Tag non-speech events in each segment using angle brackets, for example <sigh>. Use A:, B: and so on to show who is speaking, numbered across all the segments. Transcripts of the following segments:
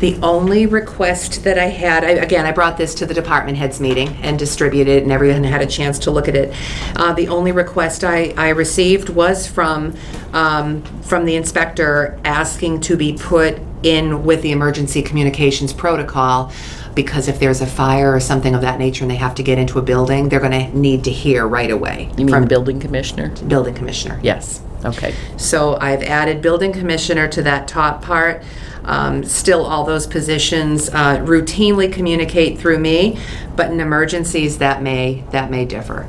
A: The only request that I had, I- again, I brought this to the department heads meeting and distributed it, and everyone had a chance to look at it. Uh, The only request I, I received was from, um, from the inspector asking to be put in with the emergency communications protocol, because if there's a fire or something of that nature and they have to get into a building, they're going to need to hear right away.
B: You mean
A: from
B: the building commissioner?
A: Building commissioner.
B: Yes, okay.
A: So I've added building commissioner to that top part. Um, Still, all those positions uh, routinely communicate through me, but in emergencies, that may, that may differ.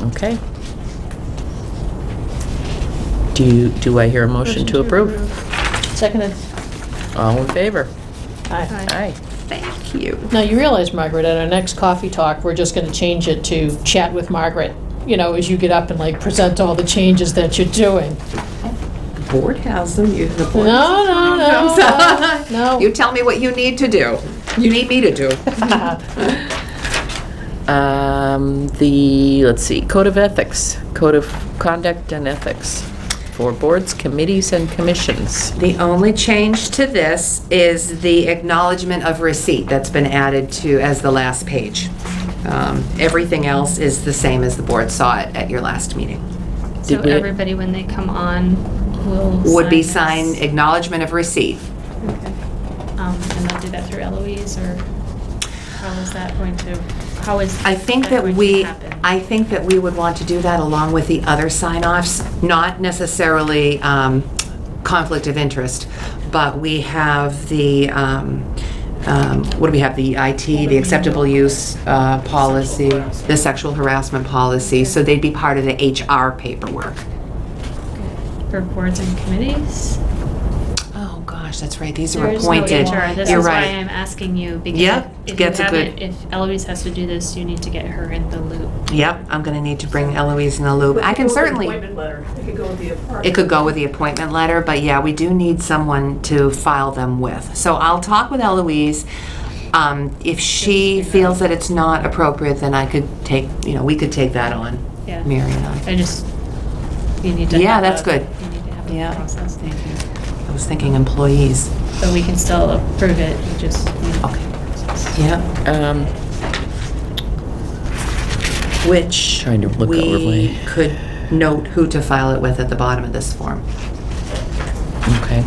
B: Okay. Do you, do I hear a motion to approve?
C: Seconded.
B: All in favor?
C: Aye.
B: Aye.
A: Thank you.
C: Now, you realize, Margaret, at our next coffee talk, we're just gonna change it to chat with Margaret, you know, as you get up and like present all the changes that you're doing.
A: Board has them, you, the board.
C: No, no, no, no,
A: <laughs>
C: no.
A: You tell me what you need to do. You need me to do.
B: Um, the, let's see, Code of Ethics, Code of Conduct and Ethics for boards, committees, and commissions.
A: The only change to this is the acknowledgement of receipt that's been added to, as the last page. Um, Everything else is the same as the board saw it at your last meeting.
D: So
B: Did we-
D: everybody, when they come on, will
A: Would be
D: sign
A: sign
D: this.
A: acknowledgement of receipt.
D: Okay. Um, and they'll do that through Eloise, or how is that going to, how is?
A: I think that
D: going to
A: we,
D: happen?
A: I think that we would want to do that along with the other sign-offs, not necessarily um, conflict of interest, but we have the, um, um, what do we have, the IT, the acceptable use uh, policy, the sexual harassment policy, so they'd be part of the HR paperwork.
D: For boards and committees?
A: Oh, gosh, that's right, these are
D: There is no
A: appointed.
D: HR. This
A: You're
D: is why
A: right.
D: I'm asking you, because
A: Yeah,
D: if you
A: that's a good-
D: haven't, if Eloise has to do this, you need to get her in the loop.
A: Yep, I'm going to need to bring Eloise in the loop. I can certainly.
E: Appointment letter. It could go with the appointment.
A: It could go with the appointment letter, but yeah, we do need someone to file them with. So I'll talk with Eloise. Um, If she feels that it's not appropriate, then I could take, you know, we could take that on,
D: Yeah.
A: Mary and I.
D: I just, you need to.
A: Yeah,
D: have
A: that's
D: a-
A: good.
D: You need to have
A: Yeah.
D: a process. Thank you.
A: I was thinking employees.
D: But we can still approve it, you just. need a
A: Okay.
D: process.
A: Yeah.
B: Um,
A: Which.
B: Trying to look
A: We
B: overlay.
A: could note who to file it with at the bottom of this form.
B: okay.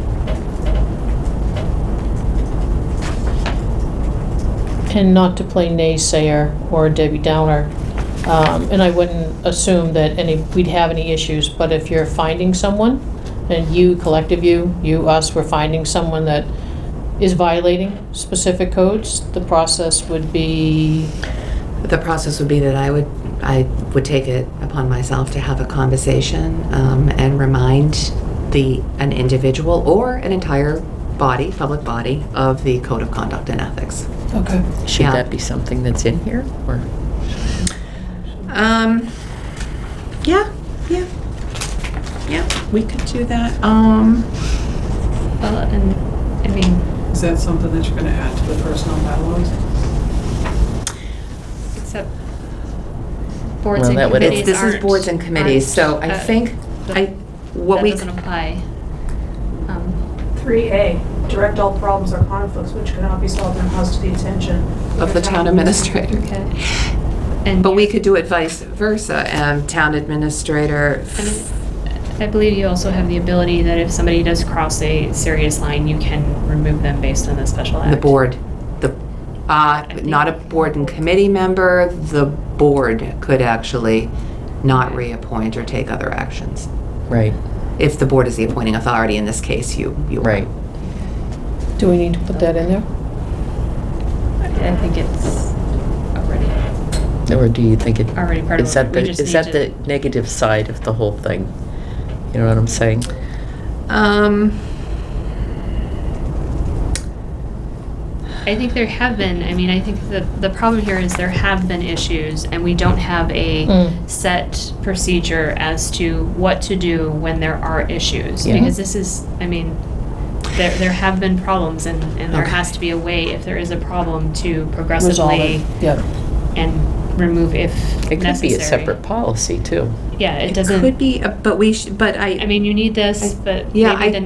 C: and not to play naysayer or Debbie Downer. Um, And I wouldn't assume that any, we'd have any issues, but if you're finding someone, and you, collective you, you, us, we're finding someone that is violating specific codes, the process would be,
A: The process would be that I would, I would take it upon myself to have a conversation um, and remind the, an individual or an entire body, public body, of the code of conduct and ethics.
C: okay,
B: Should
A: Yeah.
B: that be something that's in here, or?
A: Um, yeah, yeah, yeah, we could do that. Um,
D: Well, and, I mean,
E: Is that something that you're gonna add to the personal bylaws?
D: Except boards
B: Well,
D: and
B: that would-
D: committees
A: it's, this is
D: aren't-
A: boards and committees, so I
D: aren't, uh,
A: think, I, what
D: That
A: we.
D: doesn't apply. Um,
E: 3A, direct all problems or conflicts which cannot be solved and caused to the attention
A: Of the town administrator.
D: Okay. And
A: But we
D: you-
A: could do it vice versa, um, town administrator.
D: I mean, I believe you also have the ability that if somebody does cross a serious line, you can remove them based on the special act.
A: The board, the, uh, not a board and committee member, the board could actually not reappoint or take other actions.
B: Right,
A: If the board is the appointing authority, in this case, you, you. are.
B: right.
C: do we need to put that in there?
D: I think it's already,
B: Or do you think it?
D: Already part of
B: Is
D: it.
B: that
D: We
B: the,
D: just
B: is
D: need
B: that the
D: to-
B: negative side of the whole thing? You know what I'm saying?
A: Um,
D: I think there have been, I mean, I think the, the problem here is there have been issues and we don't have a
C: Mm.
D: set procedure as to what to do when there are issues.
B: Yeah.
D: Because this is, I mean, there, there have been problems and, and there
A: Okay.
D: has to be a way, if there is a problem, to
C: Resolve
D: progressively
C: it. Yeah,
D: and remove if
B: It could be a separate
D: necessary.
B: policy, too.
D: Yeah, it
A: could
D: doesn't,
A: be, uh, but we, sh- but
D: I mean, you need this, but
A: Yeah, I-
D: maybe the